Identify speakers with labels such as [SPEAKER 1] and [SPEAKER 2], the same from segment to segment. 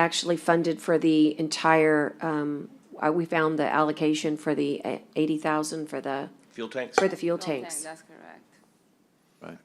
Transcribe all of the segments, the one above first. [SPEAKER 1] actually funded for the entire, um, uh, we found the allocation for the uh, eighty thousand for the,
[SPEAKER 2] Fuel tanks?
[SPEAKER 1] for the fuel
[SPEAKER 3] Fuel tank,
[SPEAKER 1] tanks.
[SPEAKER 3] That's correct.
[SPEAKER 2] Right.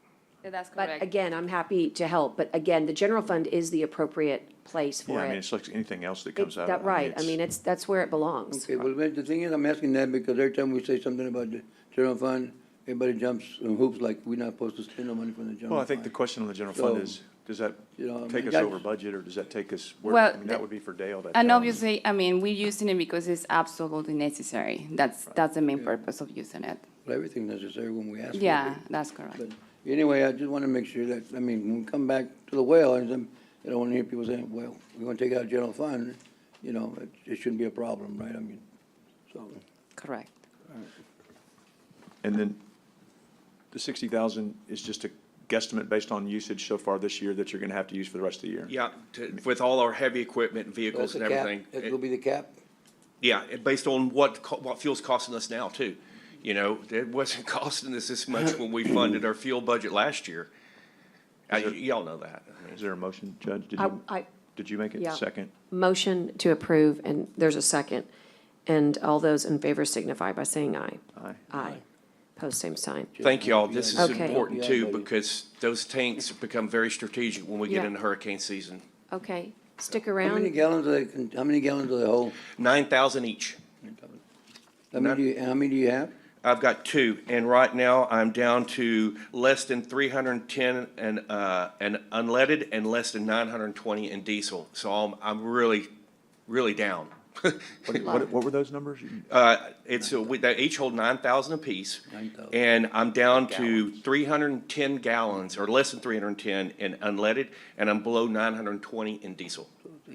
[SPEAKER 3] Yeah, That's
[SPEAKER 1] But
[SPEAKER 3] correct.
[SPEAKER 1] again, I'm happy to help, but again, the general fund is the appropriate place
[SPEAKER 2] Yeah,
[SPEAKER 1] for
[SPEAKER 2] I mean,
[SPEAKER 1] it.
[SPEAKER 2] it's like anything else that
[SPEAKER 1] It-
[SPEAKER 2] comes out. of it.
[SPEAKER 1] That, right, I
[SPEAKER 2] it's-
[SPEAKER 1] mean, it's, that's where it belongs.
[SPEAKER 4] Okay, well, wait, the thing is, I'm asking that because every time we say something about the general fund, everybody jumps in hoops like we're not supposed to spend no money from the general fund.
[SPEAKER 2] Well, I think the question on the general fund
[SPEAKER 4] So,
[SPEAKER 2] is, does that
[SPEAKER 4] you know, I
[SPEAKER 2] take
[SPEAKER 4] mean,
[SPEAKER 2] us
[SPEAKER 4] that's-
[SPEAKER 2] over budget, or does that take us, where,
[SPEAKER 3] Well,
[SPEAKER 2] I mean, that
[SPEAKER 3] the-
[SPEAKER 2] would be for Dale, that.
[SPEAKER 3] And
[SPEAKER 2] tells-
[SPEAKER 3] obviously, I mean, we're using it because it's absolutely necessary. That's, that's the main purpose of using it.
[SPEAKER 4] Well, Everything necessary when we ask. for it.
[SPEAKER 3] Yeah, that's correct.
[SPEAKER 4] But anyway, I just want to make sure that, I mean, when we come back to the well, and then, I don't want to hear people saying, well, we're going to take out general fund, you know, it, it shouldn't be a problem, right? I mean, so,
[SPEAKER 3] Correct.
[SPEAKER 2] And then the sixty thousand is just a guesstimate based on usage so far this year that you're gonna have to use for the rest of the year?
[SPEAKER 5] Yeah, to- with all our heavy equipment, and
[SPEAKER 4] that's
[SPEAKER 5] vehicles
[SPEAKER 4] the
[SPEAKER 5] and
[SPEAKER 4] cap,
[SPEAKER 5] everything.
[SPEAKER 4] that will be the cap.
[SPEAKER 5] Yeah, and based on what, co- what fuel's costing us now too. You know, it wasn't costing us this much when we funded our fuel budget last year. Uh, y- Y'all know that. I mean,
[SPEAKER 2] Is there a motion, Judge? Did
[SPEAKER 1] I,
[SPEAKER 2] you,
[SPEAKER 1] I,
[SPEAKER 2] did you make it
[SPEAKER 1] yeah.
[SPEAKER 2] second?
[SPEAKER 1] motion to approve, and there's a second. And all those in favor signify by saying aye.
[SPEAKER 2] Aye.
[SPEAKER 1] Aye. Post same sign.
[SPEAKER 5] Thank y'all. This is
[SPEAKER 1] Okay.
[SPEAKER 5] important
[SPEAKER 4] Yeah,
[SPEAKER 5] too,
[SPEAKER 4] buddy.
[SPEAKER 5] because those tanks become very strategic when we get
[SPEAKER 1] Yeah.
[SPEAKER 5] into hurricane season.
[SPEAKER 1] Okay, stick
[SPEAKER 4] How many
[SPEAKER 1] around.
[SPEAKER 4] gallons do they, con- how many gallons do they hold?
[SPEAKER 5] Nine thousand each.
[SPEAKER 4] How many, do you- how many do you have?
[SPEAKER 5] I've got two, and right now I'm down to less than three hundred and ten and, uh, and unleaded and less than nine hundred and twenty in diesel. So I'm, I'm really, really down.
[SPEAKER 2] What, what, what were those numbers?
[SPEAKER 5] Uh, it's, uh, we, they each hold nine thousand apiece.
[SPEAKER 4] 9,000.
[SPEAKER 5] And I'm down to three hundred and ten gallons, or less than three hundred and ten in unleaded, and I'm below nine hundred and twenty in diesel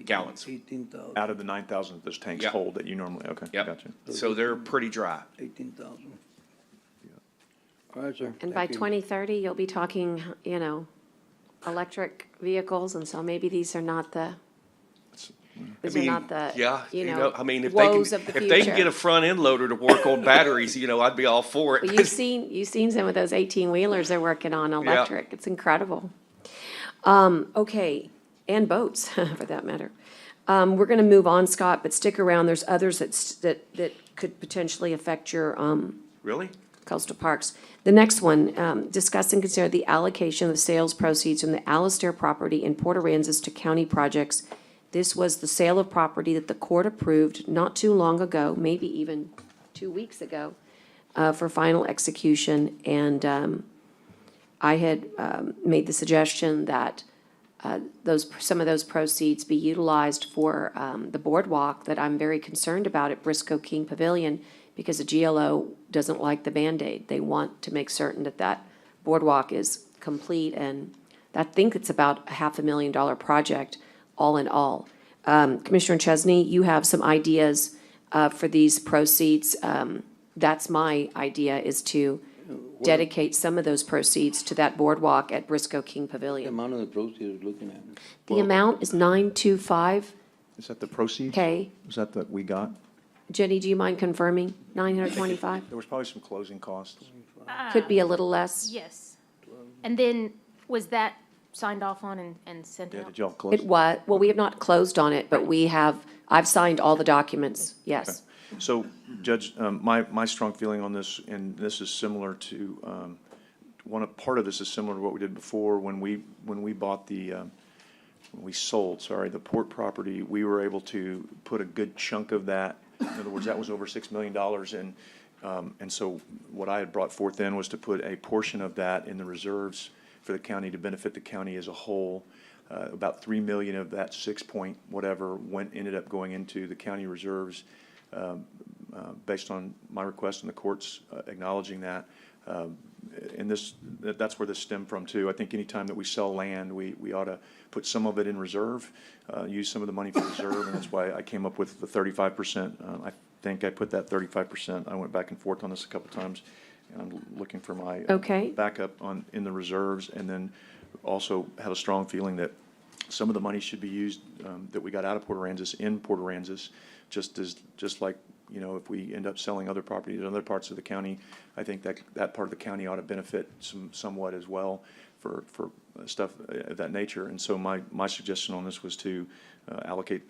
[SPEAKER 5] gallons. Uh,
[SPEAKER 4] Eighteen thousand,
[SPEAKER 2] Out of the nine thousand that those tanks
[SPEAKER 5] Yeah.
[SPEAKER 2] hold that you normally, okay,
[SPEAKER 5] Yep.
[SPEAKER 2] gotcha.
[SPEAKER 5] So they're pretty dry.
[SPEAKER 4] eighteen thousand. All right, sir.
[SPEAKER 1] And by
[SPEAKER 4] Thank you.
[SPEAKER 1] 2030, you'll be talking, you know, electric vehicles, and so maybe these are not the, these are
[SPEAKER 5] mean,
[SPEAKER 1] not the,
[SPEAKER 5] yeah,
[SPEAKER 1] you know,
[SPEAKER 5] I mean, if they
[SPEAKER 1] woes
[SPEAKER 5] can,
[SPEAKER 1] of the
[SPEAKER 5] if they can get
[SPEAKER 1] future.
[SPEAKER 5] a front end loader to work on batteries, you know, I'd be all for it.
[SPEAKER 1] But you've seen, you've seen some of those 18-wheelers they're working on electric. It's incredible. Um, Okay, and boats, for that matter. Um, We're going to move on, Scott, but stick around. There's others that's- that, that could potentially affect your um,
[SPEAKER 5] Really?
[SPEAKER 1] coastal parks. The next one, um, discuss and consider the allocation of sales proceeds from the Alastair property in Port Aransas to county projects. This was the sale of property that the court approved not too long ago, maybe even two weeks ago, uh, for final execution. And, um, I had, um, made the suggestion that, uh, those, some of those proceeds be utilized for, um, the boardwalk that I'm very concerned about at Briscoe King Pavilion because the GLO doesn't like the Band-Aid. They want to make certain that that boardwalk is complete and I think it's about a half a million dollar project, all in all. Um, Commissioner Chesney, you have some ideas, uh, for these proceeds. Um, that's my idea is to dedicate some of those proceeds to that boardwalk at Briscoe King
[SPEAKER 4] The
[SPEAKER 1] Pavilion.
[SPEAKER 4] amount of the proceeds we're looking at.
[SPEAKER 1] The amount is nine two five
[SPEAKER 2] Is that the proceeds?
[SPEAKER 1] K.
[SPEAKER 2] Is that that we got?
[SPEAKER 1] Jenny, do you mind confirming? Nine hundred twenty-five?
[SPEAKER 2] There was probably some closing costs.
[SPEAKER 1] Could be a little less.
[SPEAKER 6] Yes. And then, was that signed off on and, and sent
[SPEAKER 2] Yeah,
[SPEAKER 6] out?
[SPEAKER 2] did y'all close?
[SPEAKER 1] It was, well, we have not closed on it, but we have, I've signed all the documents, yes.
[SPEAKER 2] So Judge, um, my, my strong feeling on this, and this is similar to, um, one, of- part of this is similar to what we did before, when we, when we bought the, um, when we sold, sorry, the port property, we were able to put a good chunk of that. In other words, that was over $6 million. And, um, and so what I had brought forth then was to put a portion of that in the reserves for the county to benefit the county as a whole. Uh, About 3 million of that 6 point whatever went, ended up going into the county reserves based on my request and the courts uh, acknowledging that. Um, And this, that- that's where this stemmed from too. I think anytime that we sell land, we, we ought to put some of it in reserve, uh, use some of the money for reserve, and that's why I came up with the thirty-five percent. Uh, I think I put that thirty-five percent, I went back and forth on this a couple times, and I'm looking for my uh,
[SPEAKER 1] Okay.
[SPEAKER 2] backup on, in the reserves, and then also have a strong feeling that some of the money should be used, um, that we got out of Port Aransas in Port Aransas, just as, just like, you know, if we end up selling other properties in other parts of the county, I think that, that part of the county ought to benefit some, somewhat as well for, for stuff of that nature. And so my, my suggestion on this was to uh, allocate